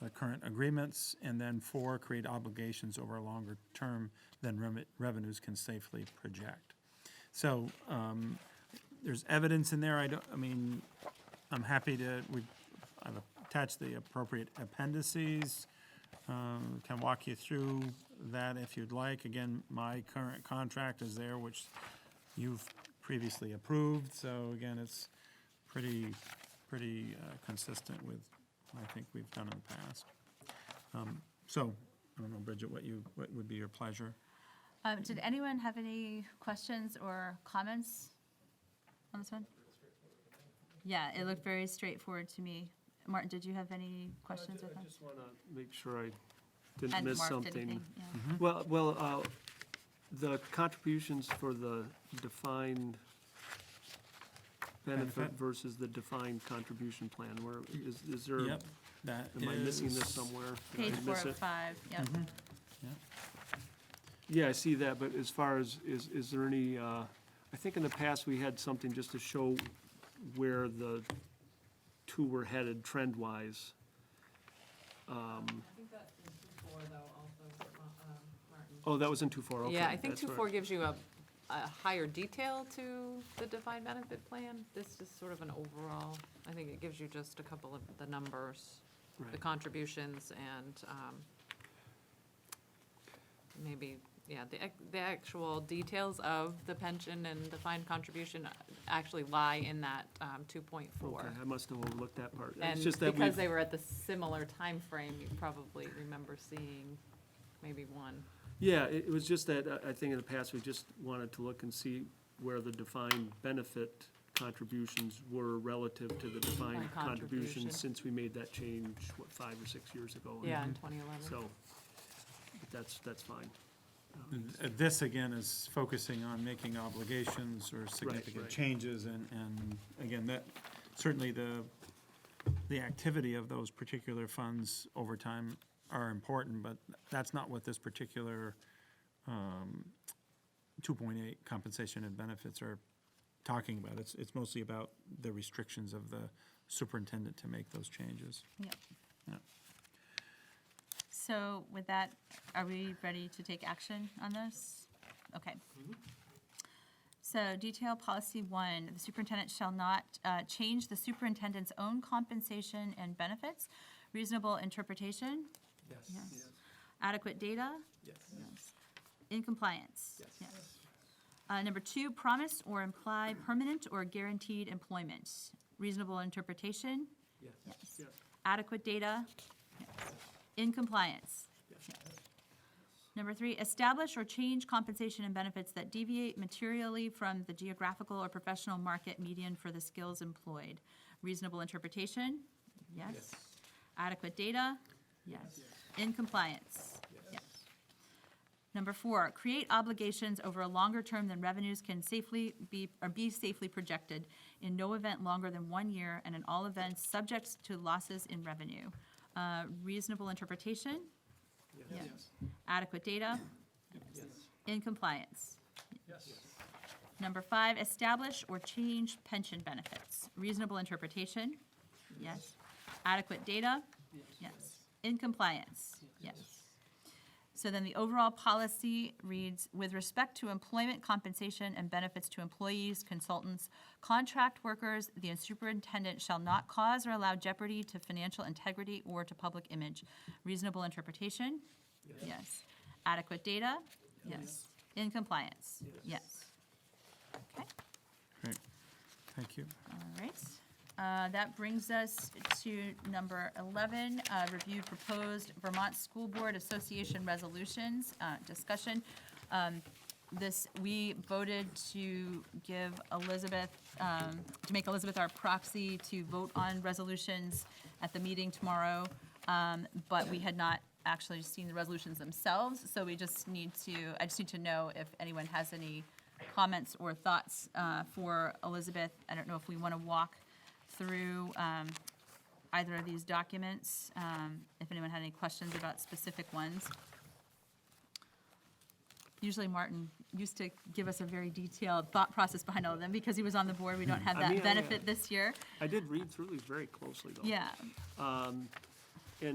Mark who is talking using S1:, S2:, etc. S1: the uh, current agreements, and then four, create obligations over a longer term than reme- revenues can safely project. So um, there's evidence in there, I don't, I mean, I'm happy to, we, I've attached the appropriate appendices. Um, Can walk you through that if you'd like. Again, my current contract is there, which you've previously approved, so again, it's pretty, pretty uh, consistent with what I think we've done in the past. Um, So, I don't know, Bridget, what you, what would be your pleasure?
S2: Um, Did anyone have any questions or comments on this one? Yeah, it looked very straightforward to me. Martin, did you have any questions or
S3: I
S2: comments?
S3: just want to make sure I didn't
S2: And
S3: miss
S2: Mark, did
S3: something.
S2: anything? Yeah.
S1: Mm-hmm.
S3: Well, well, uh, the contributions for the defined benefit
S1: Benefit.
S3: versus the defined contribution plan, where, is, is there,
S1: Yep,
S3: am
S1: that is.
S3: I missing this somewhere? Did I
S2: Page four
S3: miss
S2: of
S3: it? Mm-hmm.
S2: five, yep.
S3: Yeah, I see that, but as far as, is, is there any, uh, I think in the past, we had something just to show where the two were headed trend-wise. Um,
S4: I think that's in two four though also, Ma- um, Martin.
S3: Oh, that was in two four, okay.
S5: Yeah, I think
S3: that's where-
S5: 2.4 gives you a, a higher detail to the defined benefit plan. This is sort of an overall, I think it gives you just a couple of the numbers, the
S3: right.
S5: contributions and um, maybe, yeah, the, ac- the actual details of the pension and defined contribution actually lie in that um, 2.4.
S3: Okay, I must have overlooked that part. It's
S5: And
S3: just that
S5: because
S3: we've,
S5: they were at the similar time frame, you probably remember seeing maybe one.
S3: yeah, it, it was just that, uh, I, I think in the past, we just wanted to look and see where the defined benefit contributions were relative to the defined
S5: Defined contribution.
S3: contributions since we made that change, what, five or six years ago?
S5: Yeah, in 2011.
S3: So, but that's, that's fine.
S1: Uh, This, again, is focusing on making obligations or significant
S3: right.
S1: changes, and, and again, that, certainly the, the activity of those particular funds over time are important, but that's not what this particular um, two point eight compensation and benefits are talking about. It's, it's mostly about the restrictions of the superintendent to make those changes.
S2: Yep.
S1: Yeah.
S2: So with that, are we ready to take action on this? Okay.
S3: Mm-hmm.
S2: So detail policy one, the superintendent shall not uh, change the superintendent's own compensation and benefits. Reasonable interpretation, Yes. adequate data,
S3: Yes.
S2: in compliance.
S3: Yes.
S2: Uh, Number two, promise or imply permanent or guaranteed employment. Reasonable interpretation,
S3: Yes. Yes.
S2: adequate data, in compliance. Number three, establish or change compensation and benefits that deviate materially from the geographical or professional market median for the skills employed. Reasonable interpretation, yes. Adequate data, yes. In compliance, yes. Number four, create obligations over a longer term than revenues can safely be, or be safely projected in no event longer than one year and in all events subject to losses in revenue. Uh, Reasonable interpretation? Yes. Adequate data? In compliance? Number five, establish or change pension benefits. Reasonable interpretation? Yes. Adequate data? Yes. In compliance? Yes. So then the overall policy reads, with respect to employment compensation and benefits to employees, consultants, contract workers, the superintendent shall not cause or allow jeopardy to financial integrity or to public image. Reasonable interpretation? Yes. Adequate data? Yes. In compliance? Yes. Okay.
S1: Great, thank you.
S2: All right, Uh, that brings us to number 11, uh, review proposed Vermont School Board Association resolutions, uh, discussion. Um, This, we voted to give Elizabeth, um, to make Elizabeth our proxy to vote on resolutions at the meeting tomorrow, um, but we had not actually seen the resolutions themselves, so we just need to, I just need to know if anyone has any comments or thoughts uh, for Elizabeth. I don't know if we want to walk through um, either of these documents, um, if anyone had any questions about specific ones. Usually Martin used to give us a very detailed thought process behind all of them, because he was on the board, we don't have
S3: Hmm. I mean, oh.
S2: that
S3: I, uh,
S2: benefit this year.
S3: I did read through these very closely, though.
S2: Yeah,
S3: Um,